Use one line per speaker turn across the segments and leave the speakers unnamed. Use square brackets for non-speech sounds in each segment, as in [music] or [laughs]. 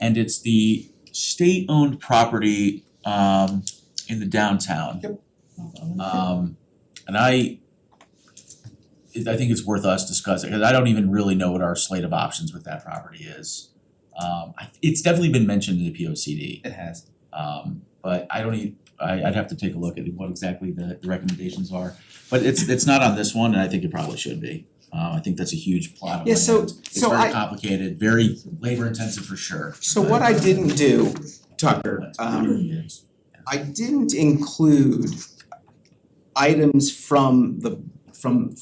and it's the state-owned property um in the downtown. Um and I it I think it's worth us discussing, cause I don't even really know what our slate of options with that property is. Um I it's definitely been mentioned in the P O C D,
It has.
um but I don't even, I I'd have to take a look at what exactly the the recommendations are. But it's it's not on this one, and I think it probably should be. Uh I think that's a huge plot of
Yeah, so-
land. It's
so
very
I-
complicated, very labor intensive for sure.
So what I didn't do, Tucker, um, I didn't include items from the, from,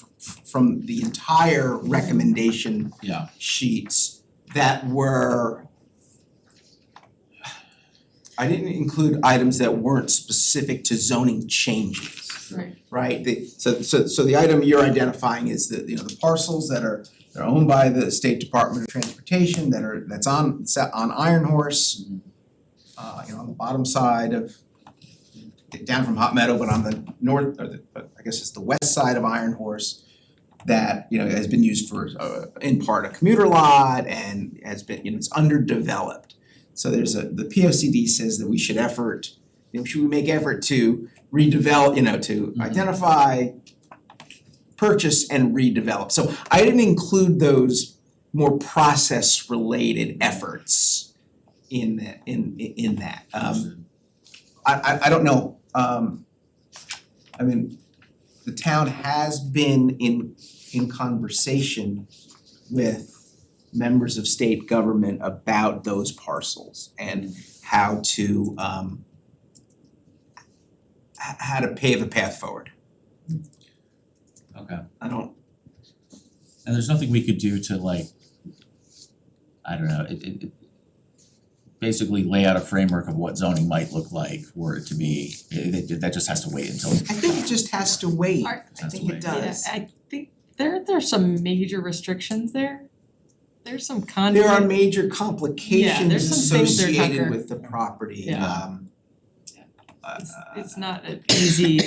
from the entire recommendation
Yeah.
sheets that were I didn't include items that weren't specific to zoning changes.
Right.
Right, the so so so the item you're identifying is the, you know, the parcels that are that are owned by the State Department of Transportation that are that's on it's on Iron Horse. Uh you know, on the bottom side of down from Hot Meadow, but on the north or the, but I guess it's the west side of Iron Horse that, you know, has been used for uh in part a commuter lot and has been, you know, it's underdeveloped. So there's a, the P O C D says that we should effort, you know, should we make effort to redevelop, you know, to
Mhm.
identify, purchase and redevelop. So I didn't include those more process related efforts in that, in in that. Um I I I don't know, um I mean, the town has been in in conversation with members of state government about those parcels and how to um h- how to pave a path forward.
Okay,
I don't,
and there's nothing we could do to like, I don't know, it it it basically lay out a framework of what zoning might look like were it to be, it it- that just has to wait until it
I think it just has to wait.
Are-
I
has to
think it
wait.
Yeah,
does.
I think there there's some major restrictions there. There's some conflict.
There are major complications
there's some things there,
associated
Tucker.
with the property,
Yeah.
um uh,
It's it's not an easy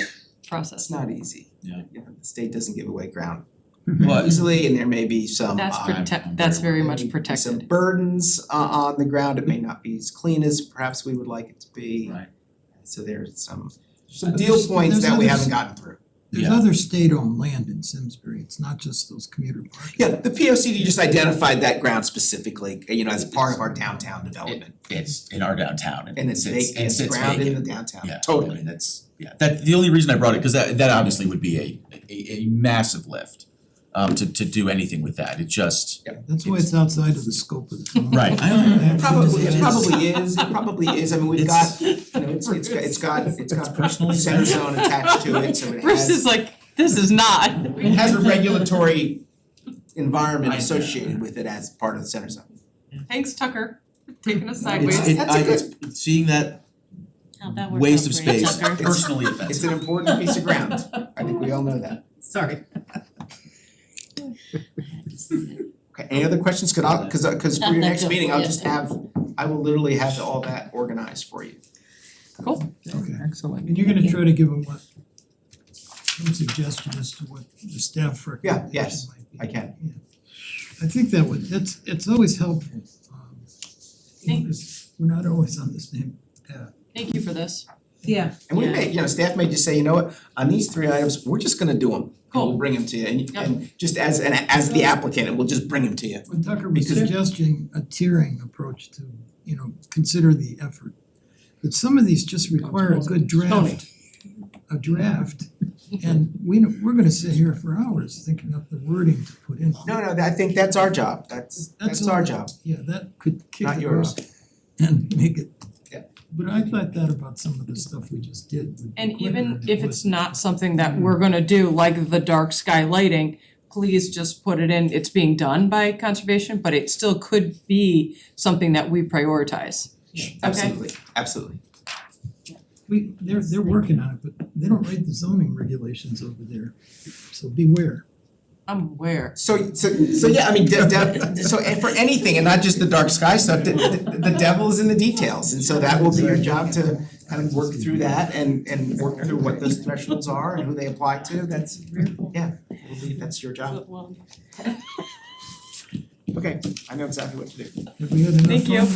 process.
It's not easy.
Yeah.
You know, the state doesn't give away ground
But-
easily and there may be some
That's
uh,
I'm
protect, that's
very-
very
there
much
may be Some
protected.
burdens uh on the ground, it may not be as clean as perhaps we would like it to be.
Right.
So there's some
Some
deal points that we haven't gotten through.
There's
Yeah.
other state-owned land in Simsbury, it's not just those commuter parks.
Yeah, the P O C D just identified that ground specifically, you know, as part of our downtown development.
It's in our downtown and
And
it
it's
sits,
vacant,
and
it's
sits
ground in the
vacant,
downtown,
yeah, I
totally.
mean, that's, yeah, that, the only reason I brought it, cause that that obviously would be a a a massive lift um to to do anything with that, it just,
That's why it's outside of the scope of the town.
right, I don't-
That
Probably,
is-
it probably is, it probably is, I mean, we've got,
It's-
you know, it's it's got, it's got, it's got
personally
center zone attached to it, so it has.
Bruce is like, this is not.
It
[laughs]
has a regulatory environment
I-
associated with it as part of the center zone.
Thanks Tucker, for taking us sideways.
it's, it,
That's a
I,
good-
it's, seeing that
How'd that work
waste of
out for you,
space
Tucker?
personally offensive.
It's an important piece of ground, I think we all know that.
[laughs] Sorry.
Okay, any other questions, could I, cause I, cause for your
Not that
next meeting, I'll just
difficult, yeah.
have, I will literally have all that organized for you.
Okay,
Excellent.
and you're gonna try to give them what, some suggestion as to what the staff
Yeah,
recommendation
yes,
might be.
I can.
I think that would, that's, it's always helpful, um, you know,
Thank-
'cause we're not always on the same path.
Thank you for this.
Yeah,
And we
Yeah.
may, you know, staff may just say, you know what, on these three items, we're just gonna do them, and we'll
Cool.
bring them to you, and
Yep.
and just as an, as the applicant, and we'll just bring them to you.
When Tucker was
Because-
suggesting a tiering approach to, you know, consider the effort. But some of these just require a good draft, a draft. And we, know- we're gonna sit here for hours thinking up the wording to put in.
No, no, I think that's our job, that's, that's
all
our
that-
job.
Yeah, that could kick
Not
it
yours.
off and make it.
Yeah.
But I thought that about some of the stuff we just did. would be
And
quicker
even
if it
if it's
was-
not something that we're gonna do, like the dark sky lighting, please just put it in, it's being done by conservation, but it still could be something that we prioritize.
Absolutely, absolutely.
We, they're, they're working on it, but they don't write the zoning regulations over there, so beware.
I'm aware.
So so so yeah, I mean, de- de- so and for anything and not just the dark sky stuff, the the the devil is in the details, and so that will be your job to kind of work through that and and work through what those thresholds are and who they apply to, that's, yeah, I believe that's your job. Okay, I know exactly what to do.
Have we had enough
Thank you.
fun?